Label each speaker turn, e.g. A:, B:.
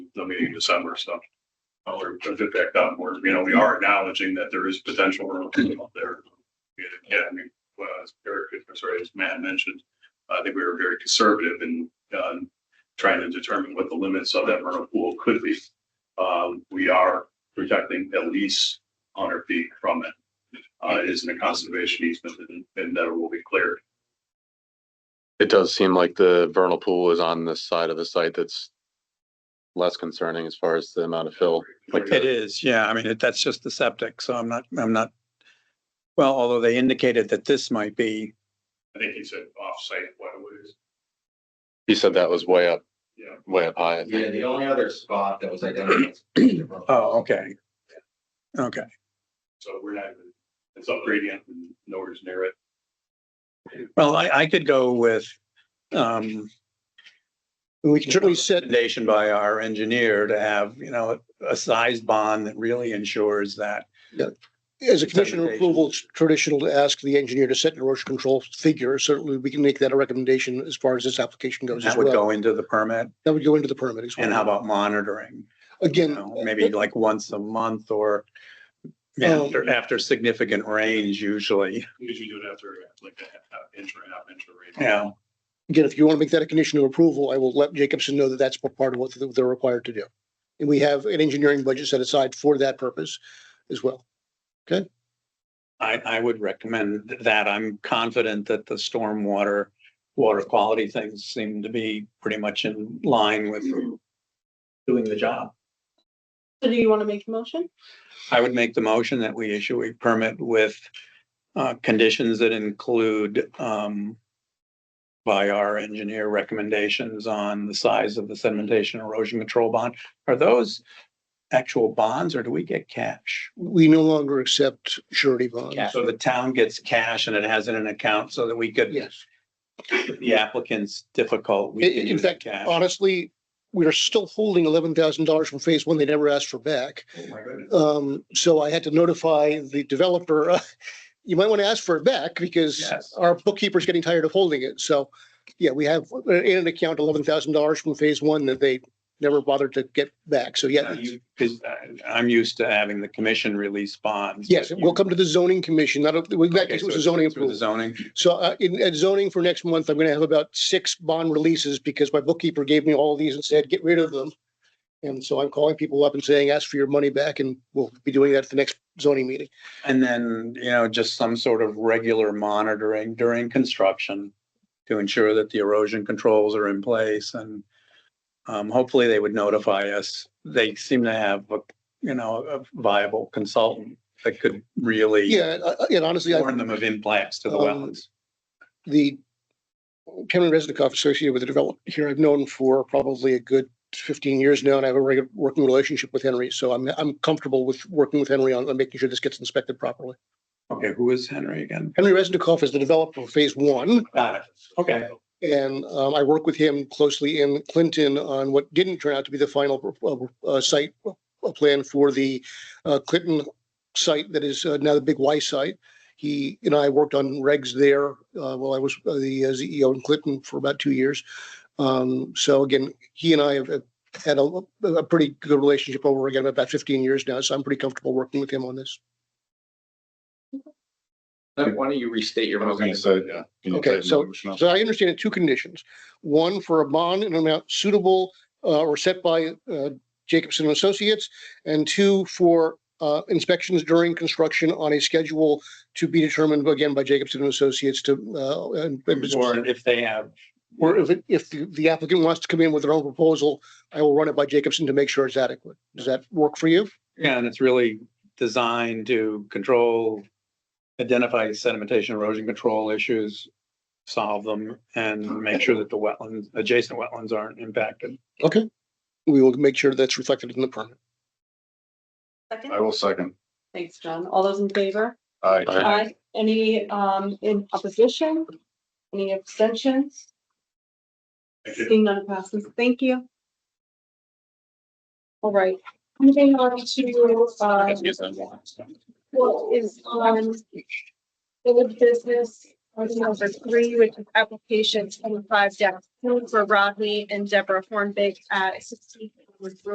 A: the meeting in December, so. uh, We're just back up, we're, you know, we are acknowledging that there is potential room up there. Yeah, I mean, well, as Eric, I'm sorry, as Matt mentioned, I think we were very conservative in, uh, trying to determine what the limits of that vernal pool could be. Um, we are protecting at least hundred feet from it. Uh, it isn't a conservation easement and, and that will be cleared.
B: It does seem like the vernal pool is on this side of the site that's less concerning as far as the amount of fill. Like
A: Right.
C: It is, yeah. I mean, it- that's just the septic, so I'm not, I'm not. Well, although they indicated that this might be,
A: I think he said off-site waterways.
B: He said that was way up,
A: Yeah.
B: way up high. I think.
D: Yeah, the only other spot that was identified.
C: oh, okay. Okay,
A: So we're not even, it's up gradient and nowhere's near it.
C: well, I, I could go with, um. We can certainly set. Nation by our engineer to have, you know, a size bond that really ensures that.
E: As a condition of
C: Recommendation.
E: approval, it's traditional to ask the engineer to set an erosion control figure. Certainly, we can make that a recommendation as far as this application goes as
C: That would
E: well.
C: go into the permit.
E: That would go into the permit as well.
C: And how about monitoring? You
E: Again,
C: know, Maybe like once a month or
E: Um,
C: after, after significant rains usually,
A: Usually do it after like a half inch or a half inch of rain.
C: you know.
E: again, if you want to make that a condition of approval, I will let Jacobson know that that's part of what they're required to do. And we have an engineering budget set aside for that purpose as well.
C: I, I would recommend th- that. I'm confident that the stormwater, water quality things seem to be pretty much in line with doing the job.
F: So do you want to make a motion?
C: I would make the motion that we issue a permit with uh, conditions that include um, by our engineer recommendations on the size of the sedimentation erosion control bond. Are those actual bonds or do we get cash?
E: We no longer accept surety bonds.
D: Cash.
C: So the town gets cash and it has it in an account so that we could
E: Yes.
C: the applicant's difficult. we
E: In-
C: can
E: in
C: use
E: fact,
C: cash.
E: Honestly, we are still holding eleven thousand dollars from phase one. They never asked for back.
C: Oh, my goodness.
E: Um, so I had to notify the developer, uh, you might want to ask for it back because
C: Yes.
E: our bookkeeper's getting tired of holding it. So, yeah, we have in an account eleven thousand dollars from phase one that they never bothered to get back. So, yeah.
C: Are Uh, you- 'cause I- I'm used to having the commission release bonds.
E: Yes,
C: but
E: we'll
C: you-
E: come to the zoning commission. Not, a- in that
C: Okay,
E: case,
C: so
E: it was a
C: it's
E: zoning
C: through the
E: approval.
C: Zoning,
E: So, uh, in, at zoning for next month, I'm going to have about six bond releases because my bookkeeper gave me all these and said, get rid of them. And so I'm calling people up and saying, ask for your money back and we'll be doing that at the next zoning meeting.
C: and then, you know, just some sort of regular monitoring during construction to ensure that the erosion controls are in place and um, hopefully they would notify us. They seem to have, a you know, a viable consultant that could really
E: Yeah, uh, uh, and honestly, I
C: warn them of impacts to the
E: Um,
C: wetlands.
E: the Kevin Resnikoff associated with the developer here, I've known for probably a good fifteen years now, and I have a regular working relationship with Henry, so I'm, I'm comfortable with working with Henry on, on making sure this gets inspected properly.
C: Okay, who is Henry again?
E: Henry Resnikoff is the developer of phase one,
C: Got it. Okay.
E: and, um, I work with him closely in Clinton on what didn't turn out to be the final, uh, uh, site uh, plan for the, uh, Clinton site that is uh, now the Big Y site. He and I worked on regs there, uh, while I was uh, the uh, CEO in Clinton for about two years. Um, so again, he and I have uh, had a, a pretty good relationship over again about fifteen years now, so I'm pretty comfortable working with him on this.
D: Why don't you restate your motion?
A: yeah.
E: Okay, so, so I understand it, two conditions. One for a bond in an amount suitable uh, or set by uh, Jacobson and Associates, and two for uh, inspections during construction on a schedule to be determined again by Jacobson and Associates to, uh, and-
C: Or if they have
E: or if, it- if the the applicant wants to come in with their own proposal, I will run it by Jacobson to make sure it's adequate. Does that work for you?
C: Yeah, and it's really designed to control, identify sedimentation erosion control issues, solve them, and make sure that the wetlands, adjacent wetlands aren't impacted.
E: Okay. We will make sure that's reflected in the permit.
F: Second?
A: will second.
F: Thanks, John. All those in favor?
A: Aye.
B: Aye.
F: Aye. Any um in opposition? Any abstentions? Seeing none passes. Thank you. All right, moving on to uh what is on old business item number three, which is application twenty-five dash two for Rodney and Deborah Hornbeck at sixteen Wood Road.